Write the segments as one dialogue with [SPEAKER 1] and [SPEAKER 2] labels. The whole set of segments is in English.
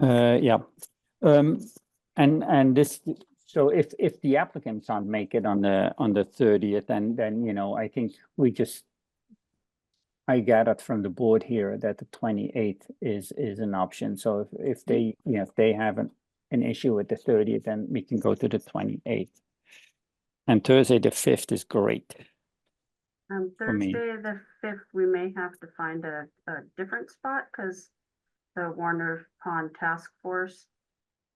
[SPEAKER 1] Uh, yeah. Um, and, and this, so if, if the applicants can't make it on the, on the thirtieth, then, then, you know, I think we just. I gathered from the board here that the twenty-eighth is, is an option. So if, if they, you know, if they have an, an issue with the thirtieth, then we can go to the twenty-eighth. And Thursday, the fifth is great.
[SPEAKER 2] Um,
[SPEAKER 1] for me.
[SPEAKER 2] Thursday, the fifth, we may have to find a, a different spot, cause the Warner Pond Task Force.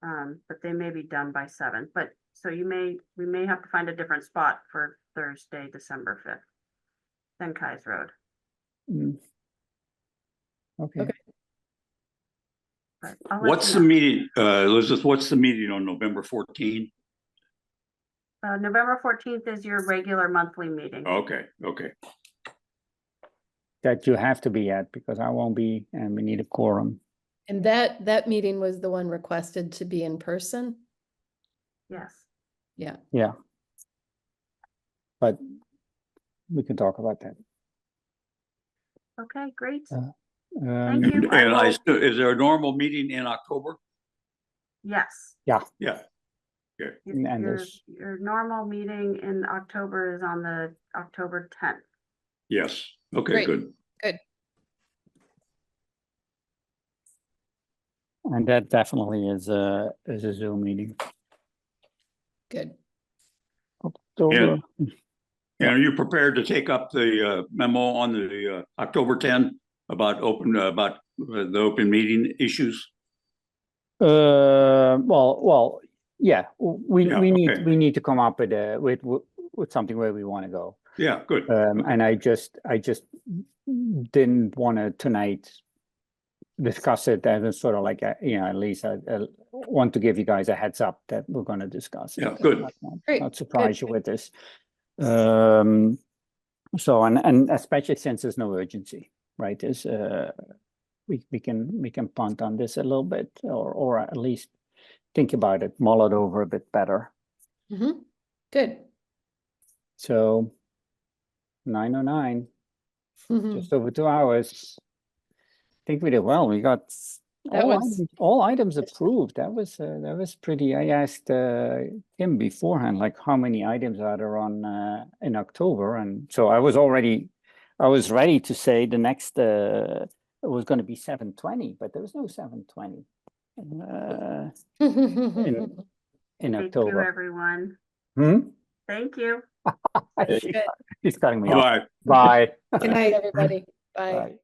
[SPEAKER 2] Um, but they may be done by seven, but, so you may, we may have to find a different spot for Thursday, December fifth. Than Kai's Road,
[SPEAKER 1] Mm. Okay,
[SPEAKER 2] but. I'll let
[SPEAKER 3] What's the
[SPEAKER 2] you know.
[SPEAKER 3] meeting, uh, Elizabeth, what's the meeting on November fourteen?
[SPEAKER 2] Uh, November fourteenth is your regular monthly meeting.
[SPEAKER 1] Oh.
[SPEAKER 3] Okay, okay.
[SPEAKER 1] that you have to be at because I won't be and we need a quorum.
[SPEAKER 4] And that, that meeting was the one requested to be in person?
[SPEAKER 2] Yes,
[SPEAKER 4] Yeah,
[SPEAKER 1] Yeah. But we can talk about that.
[SPEAKER 2] okay, great.
[SPEAKER 1] Uh,
[SPEAKER 2] Thank
[SPEAKER 1] Um,
[SPEAKER 3] And
[SPEAKER 2] you. I
[SPEAKER 3] and I,
[SPEAKER 2] will-
[SPEAKER 3] assu- is there a normal meeting in October?
[SPEAKER 2] Yes.
[SPEAKER 3] Yeah,
[SPEAKER 2] Your-
[SPEAKER 1] And- and
[SPEAKER 2] Your,
[SPEAKER 1] there's-
[SPEAKER 2] your normal meeting in October is on the October tenth.
[SPEAKER 3] yes. Okay,
[SPEAKER 4] Great.
[SPEAKER 3] good.
[SPEAKER 1] and that definitely is a, is a Zoom meeting.
[SPEAKER 4] good.
[SPEAKER 1] October,
[SPEAKER 3] And are you prepared to take up the uh, memo on the uh, October ten about open, about uh, the open meeting issues?
[SPEAKER 1] Uh, well, well, yeah, w- we,
[SPEAKER 3] Yeah,
[SPEAKER 1] we need,
[SPEAKER 3] okay.
[SPEAKER 1] we need to come up with a, with, with with something where we want to go.
[SPEAKER 3] Yeah, good.
[SPEAKER 1] Um, and I just, I just didn't want to tonight discuss it as a sort of like, a- you know, at least I, I want to give you guys a heads up that we're going to discuss. it.
[SPEAKER 3] Yeah, good.
[SPEAKER 1] Not- not-
[SPEAKER 4] Great,
[SPEAKER 1] Not surprise you with this. Um, so, and, and especially since there's no urgency, right, is, uh, we, we can, we can punt on this a little bit, or, or at least think about it, mull it over a bit better.
[SPEAKER 4] Mhm. Good.
[SPEAKER 1] So nine oh nine.
[SPEAKER 4] Mhm.
[SPEAKER 1] just over two hours. I think we did well. We got
[SPEAKER 4] That
[SPEAKER 1] all
[SPEAKER 4] was-
[SPEAKER 1] items- all items approved. That was, uh, that was pretty, I asked, uh, him beforehand, like how many items are there on, uh, in October? And so I was already, I was ready to say the next, uh, it was gonna be seven twenty, but there was no seven twenty. Uh, in
[SPEAKER 2] Thank you,
[SPEAKER 1] October.
[SPEAKER 2] everyone.
[SPEAKER 1] Hmm?
[SPEAKER 2] Thank you.
[SPEAKER 1] She's cutting me off.
[SPEAKER 3] Bye.
[SPEAKER 1] Bye.
[SPEAKER 4] Good night, everybody. Bye.
[SPEAKER 1] Bye.